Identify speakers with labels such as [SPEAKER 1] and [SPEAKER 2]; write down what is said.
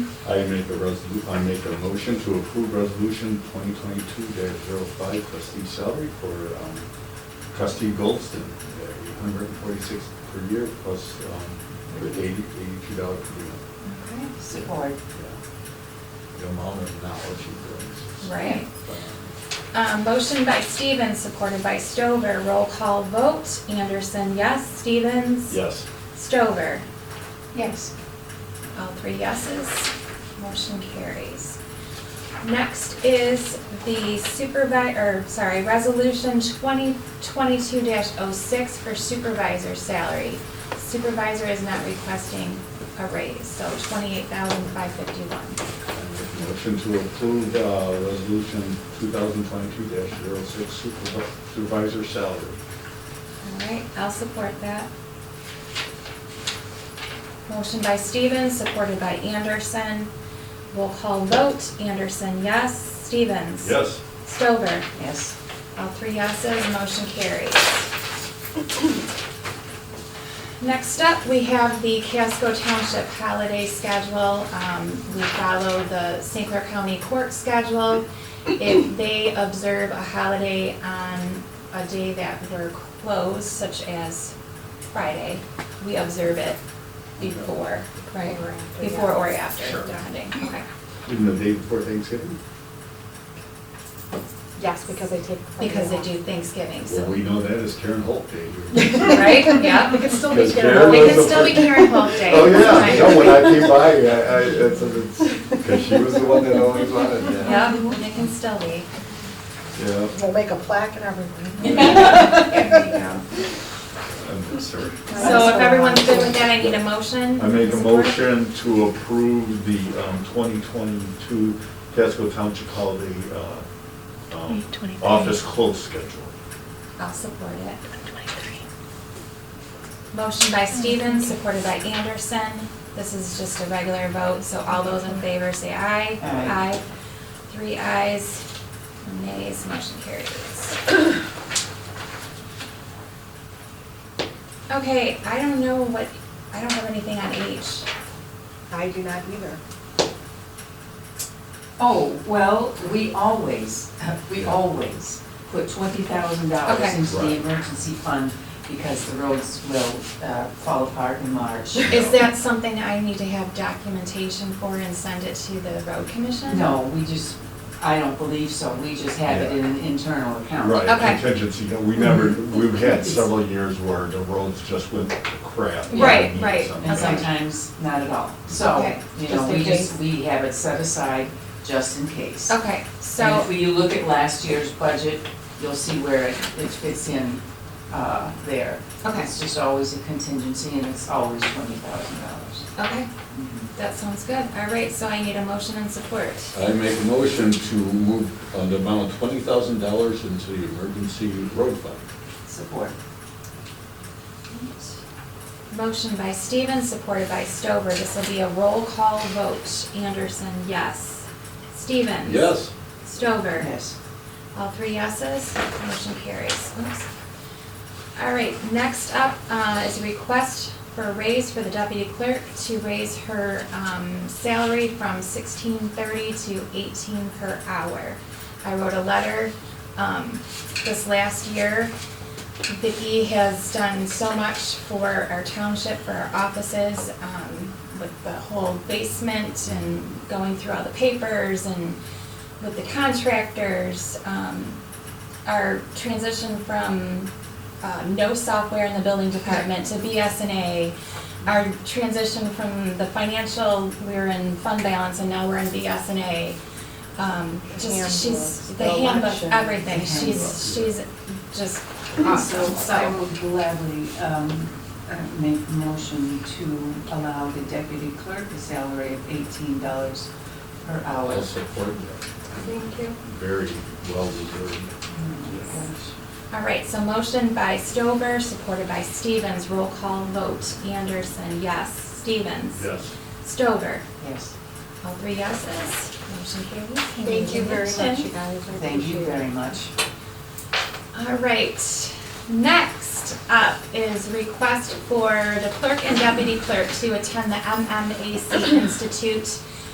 [SPEAKER 1] I make a resolu, I make a motion to approve resolution twenty twenty-two 5 trustee salary for um, trustee Goldston, eight hundred and forty-six per year plus um, eighty, eighty-two dollars per year.
[SPEAKER 2] Okay, support.
[SPEAKER 1] Yeah. The amount of knowledge he brings.
[SPEAKER 3] Right. Um, motion by Stevens, supported by Stover. Roll call vote. Anderson, yes. Stevens?
[SPEAKER 1] Yes.
[SPEAKER 3] Stover?
[SPEAKER 2] Yes.
[SPEAKER 3] All three yeses. Motion carries. Next is the supervisor, or sorry, resolution twenty twenty-two 6 for supervisor salary. Supervisor is not requesting a raise, so twenty-eight thousand five fifty-one.
[SPEAKER 1] I make a motion to approve uh, resolution two thousand twenty-two 6 supervisor salary.
[SPEAKER 3] All right, I'll support that. Motion by Stevens, supported by Anderson. We'll call vote. Anderson, yes. Stevens? Stover?
[SPEAKER 2] Yes.
[SPEAKER 3] All three yeses, motion carries. Next up, we have the Casco Township holiday schedule. Um, We follow the St. Clair County Court schedule. If they observe a holiday on a day that we're closed, such as Friday, we observe it before. Right. Before or after,
[SPEAKER 1] Sure.
[SPEAKER 3] depending, okay.
[SPEAKER 1] Even the day before Thanksgiving?
[SPEAKER 4] Yes, because they take. Friday
[SPEAKER 3] Because they
[SPEAKER 4] off.
[SPEAKER 3] do Thanksgiving, so.
[SPEAKER 1] Well, we know that is Karen Holt Day.
[SPEAKER 3] Right, yeah.
[SPEAKER 4] We could still be
[SPEAKER 1] Because
[SPEAKER 4] here.
[SPEAKER 1] Karen
[SPEAKER 3] We
[SPEAKER 1] was
[SPEAKER 3] could
[SPEAKER 1] the
[SPEAKER 3] still be
[SPEAKER 1] first-
[SPEAKER 3] Karen Holt Day.
[SPEAKER 1] Oh, yeah,
[SPEAKER 3] Right.
[SPEAKER 1] no, when I came by, I, I, it's, it's, because she was the one that always wanted that.
[SPEAKER 3] Yeah, it can still be.
[SPEAKER 1] Yeah,
[SPEAKER 4] We'll make a plaque and everything.
[SPEAKER 1] I'm sorry.
[SPEAKER 3] So if everyone's good with that, I need a motion.
[SPEAKER 1] I make a
[SPEAKER 3] Support?
[SPEAKER 1] motion to approve the, um, twenty twenty-two Casco Township holiday, uh, um, office close schedule.
[SPEAKER 3] I'll support it. Motion by Stevens, supported by Anderson. This is just a regular vote, so all those in favor say aye.
[SPEAKER 2] Aye.
[SPEAKER 3] Three ayes, nays, motion carries. Okay, I don't know what, I don't have anything on H.
[SPEAKER 4] I do not either.
[SPEAKER 2] Oh, well, we always, we always put twenty thousand dollars
[SPEAKER 3] Okay.
[SPEAKER 2] into the
[SPEAKER 1] Right.
[SPEAKER 2] emergency fund because the roads will uh, fall apart in March.
[SPEAKER 3] Is that something I need to have documentation for and send it to the road commission?
[SPEAKER 2] No, we just, I don't believe so. We just have it in an internal account.
[SPEAKER 1] Right,
[SPEAKER 3] Oh, Okay.
[SPEAKER 1] contingency, you know, we never, we've had several years where the roads just went to crap. and we
[SPEAKER 3] Right,
[SPEAKER 1] needed
[SPEAKER 3] right.
[SPEAKER 1] something.
[SPEAKER 2] And sometimes not at all. So,
[SPEAKER 3] Okay,
[SPEAKER 2] you
[SPEAKER 4] just
[SPEAKER 2] know,
[SPEAKER 4] in
[SPEAKER 2] we just, we have it set aside just in case.
[SPEAKER 3] Okay,
[SPEAKER 2] And
[SPEAKER 3] so,
[SPEAKER 2] if we- you look at last year's budget, you'll see where it it fits in uh, there.
[SPEAKER 3] Okay.
[SPEAKER 2] It's just always a contingency and it's always twenty thousand dollars.
[SPEAKER 3] okay, that sounds good. All right, so I need a motion and support.
[SPEAKER 1] I make a motion to move uh, the amount of twenty thousand dollars into the emergency road fund.
[SPEAKER 2] Support.
[SPEAKER 3] Motion by Stevens, supported by Stover. This will be a roll call vote. Anderson, yes. Stevens?
[SPEAKER 1] Yes,
[SPEAKER 3] Stover?
[SPEAKER 2] Yes.
[SPEAKER 3] All three yeses, motion carries. Oops. All right, next up uh, is a request for a raise for the deputy clerk to raise her um, salary from sixteen thirty to eighteen per hour. I wrote a letter um, this last year. Vicki has done so much for our township, for our offices, um, with the whole basement and going through all the papers and with the contractors, um, our transition from, uh, no software in the building department to BSNA, our transition from the financial, we were in fund balance and now we're in BSNA. Um, just, she's,
[SPEAKER 4] Handbooks,
[SPEAKER 3] the
[SPEAKER 4] the
[SPEAKER 3] handbook,
[SPEAKER 4] election.
[SPEAKER 3] everything,
[SPEAKER 2] The
[SPEAKER 3] she's, she's just
[SPEAKER 2] So
[SPEAKER 3] awesome,
[SPEAKER 2] I
[SPEAKER 3] so,
[SPEAKER 2] would gladly um, uh, make a motion to allow the deputy clerk a salary of eighteen dollars per hour.
[SPEAKER 1] I'll support that.
[SPEAKER 3] thank you.
[SPEAKER 1] Very well deserved.
[SPEAKER 3] All right, so motion by Stover, supported by Stevens, roll call vote, Anderson, yes, Stevens.
[SPEAKER 1] Yes.
[SPEAKER 3] Stover.
[SPEAKER 2] Yes,
[SPEAKER 3] All three yeses, motion carries.
[SPEAKER 4] Thank you very much, you guys. I
[SPEAKER 2] thank you
[SPEAKER 4] appreciate it.
[SPEAKER 2] very much.
[SPEAKER 3] All right, next up is request for the clerk and deputy clerk to attend the MMAC Institute